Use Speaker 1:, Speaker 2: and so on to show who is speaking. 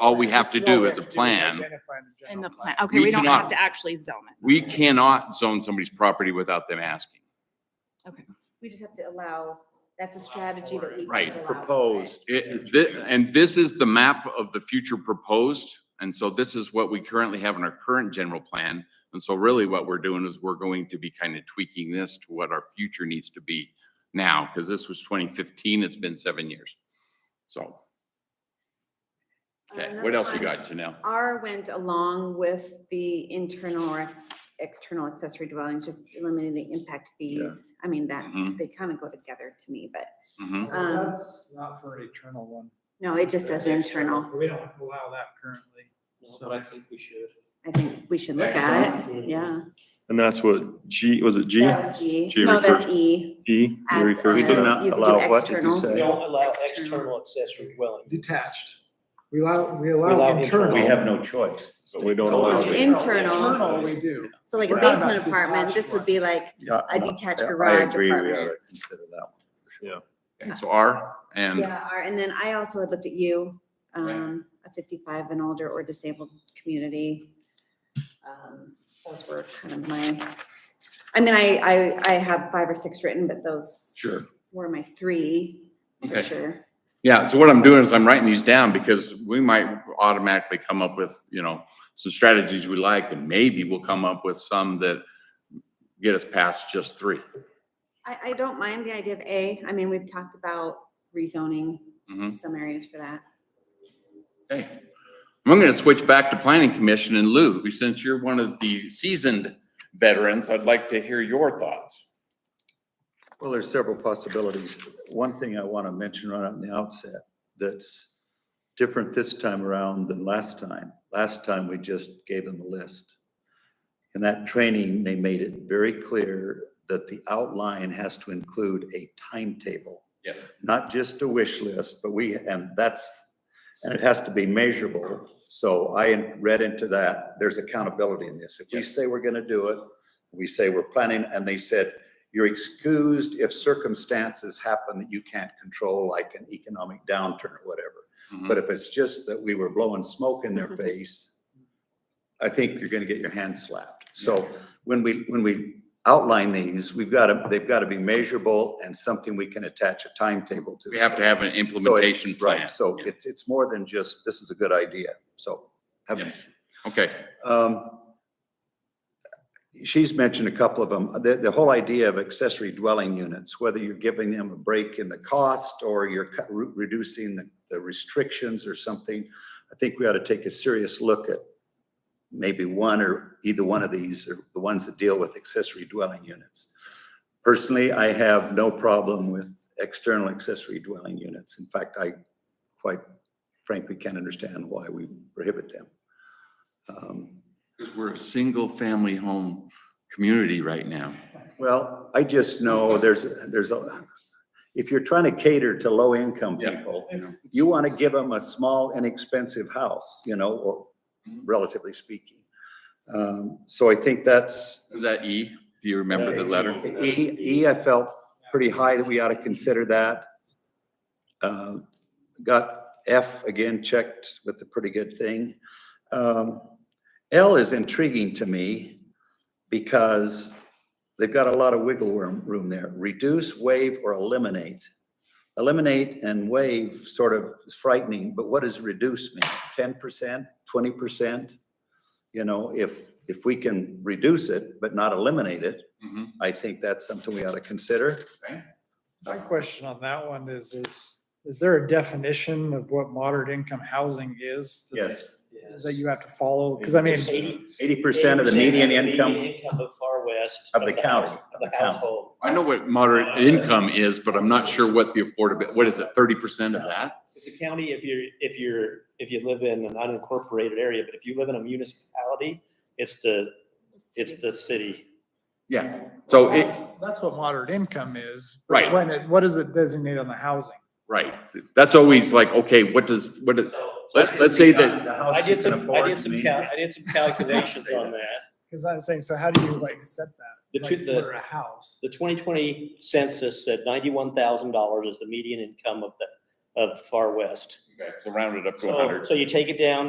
Speaker 1: all we have to
Speaker 2: Still,
Speaker 1: do
Speaker 2: we
Speaker 1: is a
Speaker 2: have to
Speaker 1: plan.
Speaker 2: identify the
Speaker 3: in the
Speaker 2: general
Speaker 3: plan. Okay,
Speaker 1: We
Speaker 3: we don't have
Speaker 1: cannot-
Speaker 3: to actually zone it.
Speaker 1: We cannot zone somebody's property without them asking.
Speaker 4: We just have to allow, that's a strategy that we.
Speaker 1: Right.
Speaker 4: can allow,
Speaker 5: Proposed.
Speaker 1: It, thi- and this is the map of the future proposed. And so this is what we currently have in our current general plan. And so really what we're doing is we're going to be kind of tweaking this to what our future needs to be now, because this was twenty fifteen, it's been seven years. So,
Speaker 4: right?
Speaker 1: okay, what else you got, Janelle?
Speaker 4: R went along with the internal or ex- external accessory dwellings, just eliminating the impact fees. I mean, that,
Speaker 1: Mhm.
Speaker 4: they kind of go together to me, but
Speaker 1: Mhm.
Speaker 2: plan. Well,
Speaker 4: Um,
Speaker 2: That's not for an eternal one.
Speaker 4: no, it just says internal.
Speaker 2: We don't allow that currently.
Speaker 6: No, But I think we should.
Speaker 4: I think we should look at it, yeah.
Speaker 7: And that's what G, was it G?
Speaker 4: That was G.
Speaker 7: G
Speaker 4: No, that's
Speaker 7: refers-
Speaker 4: E.
Speaker 7: E?
Speaker 4: Adds
Speaker 7: You refers
Speaker 5: We
Speaker 4: on.
Speaker 5: do
Speaker 7: to that?
Speaker 5: not
Speaker 4: You could do
Speaker 5: allow what, did you
Speaker 4: external.
Speaker 5: say?
Speaker 6: We don't allow
Speaker 4: External.
Speaker 6: external accessory dwelling.
Speaker 2: Detached. We allow, we
Speaker 6: allow
Speaker 2: allow internal.
Speaker 6: internal.
Speaker 5: We have no choice.
Speaker 7: But we don't allow
Speaker 5: Always
Speaker 4: it.
Speaker 5: we-
Speaker 4: Internal.
Speaker 2: Internal, we do.
Speaker 4: So like a
Speaker 2: We're not
Speaker 4: basement
Speaker 2: about
Speaker 4: apartment, this would be
Speaker 2: detached
Speaker 4: like
Speaker 5: Yeah,
Speaker 4: a
Speaker 5: no,
Speaker 4: detached
Speaker 5: I- I
Speaker 4: garage
Speaker 5: agree, we ought
Speaker 4: apartment.
Speaker 5: to consider that one.
Speaker 1: Okay, So R and.
Speaker 4: Yeah, or- and then I also had looked at you,
Speaker 1: Um, Right.
Speaker 4: um, a fifty-five and older or disabled community. Um, Those were kind of my, I mean, I, I, I have five or six written, but those
Speaker 1: Sure.
Speaker 4: were my three, for
Speaker 1: Okay.
Speaker 4: sure.
Speaker 1: Yeah, so what I'm doing is I'm writing these down because we might automatically come up with, you know, some strategies we like and maybe we'll come up with some that get us past just three.
Speaker 4: I, I don't mind the idea of A, I mean, we've talked about rezoning
Speaker 1: Mhm.
Speaker 4: some areas for that.
Speaker 1: Okay. I'm gonna switch back to planning commission and Lou, who- since you're one of the seasoned veterans, I'd like to hear your thoughts.
Speaker 5: Well, there's several possibilities. One thing I want to mention right on the outset that's different this time around than last time. Last time, we just gave them a list. In that training, they made it very clear that the outline has to include a timetable,
Speaker 1: Yes.
Speaker 5: not just a wish list, but we, and that's, and it has to be measurable. So I read into that, there's accountability in this. If we
Speaker 1: Yes.
Speaker 5: say we're going to do it, we say we're planning, and they said, you're excused if circumstances happen that you can't control, like an economic downturn or whatever. But if it's just that we were blowing smoke in their face, I think you're gonna get your hand slapped. So when we, when we outline these, we've gotta, they've gotta be measurable and something we can attach a timetable to.
Speaker 1: We have to have an
Speaker 5: So it's-
Speaker 1: implementation plan.
Speaker 5: Right, so it's, it's more than just, this is a good idea, so. having
Speaker 1: Yes. Okay.
Speaker 5: um, She's mentioned a couple of them. The, the whole idea of accessory dwelling units, whether you're giving them a break in the cost or you're cut- re- reducing the, the restrictions or something, I think we ought to take a serious look at maybe one or either one of these, or the ones that deal with accessory dwelling units. Personally, I have no problem with external accessory dwelling units. In fact, I quite frankly can't understand why we prohibit them. Um,
Speaker 1: Because we're a single-family home community right now.
Speaker 5: Well, I just know there's, there's, a if you're trying to cater to low-income
Speaker 1: Yeah.
Speaker 5: people,
Speaker 2: It's-
Speaker 5: you want to give them a small, inexpensive house, you know, or
Speaker 1: Mhm.
Speaker 5: relatively speaking. Um, So I think that's,
Speaker 1: Is that E? Do you remember the letter?
Speaker 5: E, E, I felt pretty high that we ought to consider that. Uh, Got F again checked with a pretty good thing. Um, L is intriguing to me because they've got a lot of wiggle room, room there. Reduce, waive, or eliminate. Eliminate and waive sort of is frightening, but what does reduce mean? Ten percent, twenty percent? You know, if, if we can reduce it but not eliminate it,
Speaker 1: Mhm.
Speaker 5: I think that's something we ought to consider.
Speaker 2: My question on that one is, is, is there a definition of what moderate income housing is? that-
Speaker 6: Yes.
Speaker 2: That you have to follow? Because I mean,
Speaker 6: It's 80%
Speaker 5: Eighty percent of the median income,
Speaker 6: Income of Far West.
Speaker 5: Of the county,
Speaker 6: house-
Speaker 5: of
Speaker 6: Of
Speaker 5: the
Speaker 6: the
Speaker 5: county.
Speaker 6: household.
Speaker 1: I know what moderate income is, but I'm not sure what the affordable, what is it, thirty percent of that?
Speaker 6: If the county, if you're, if you're, if you live in an unincorporated area, but if you live in a municipality, it's the, it's the city.
Speaker 1: Yeah, so it,
Speaker 2: that's- That's what moderate income is. but
Speaker 1: Right.
Speaker 2: When it, what does it designate on the housing?
Speaker 1: right, that's always like, okay, what does, what is, let, let's say that,
Speaker 5: The house
Speaker 6: I
Speaker 5: you
Speaker 6: did
Speaker 5: can
Speaker 6: some, I
Speaker 5: afford,
Speaker 6: did some,
Speaker 5: mean,
Speaker 6: cal- I did some calculations
Speaker 5: Say
Speaker 6: on
Speaker 5: that.
Speaker 6: that.
Speaker 2: Because I was saying, so how do you like set
Speaker 6: The
Speaker 2: that?
Speaker 6: two-
Speaker 2: Like
Speaker 6: the-
Speaker 5: uh,
Speaker 2: for a house?
Speaker 6: The twenty twenty census said ninety-one thousand dollars is the median income of the
Speaker 1: of far west.
Speaker 6: Okay, so round it up to
Speaker 1: So,
Speaker 6: hundred.
Speaker 1: so you take it down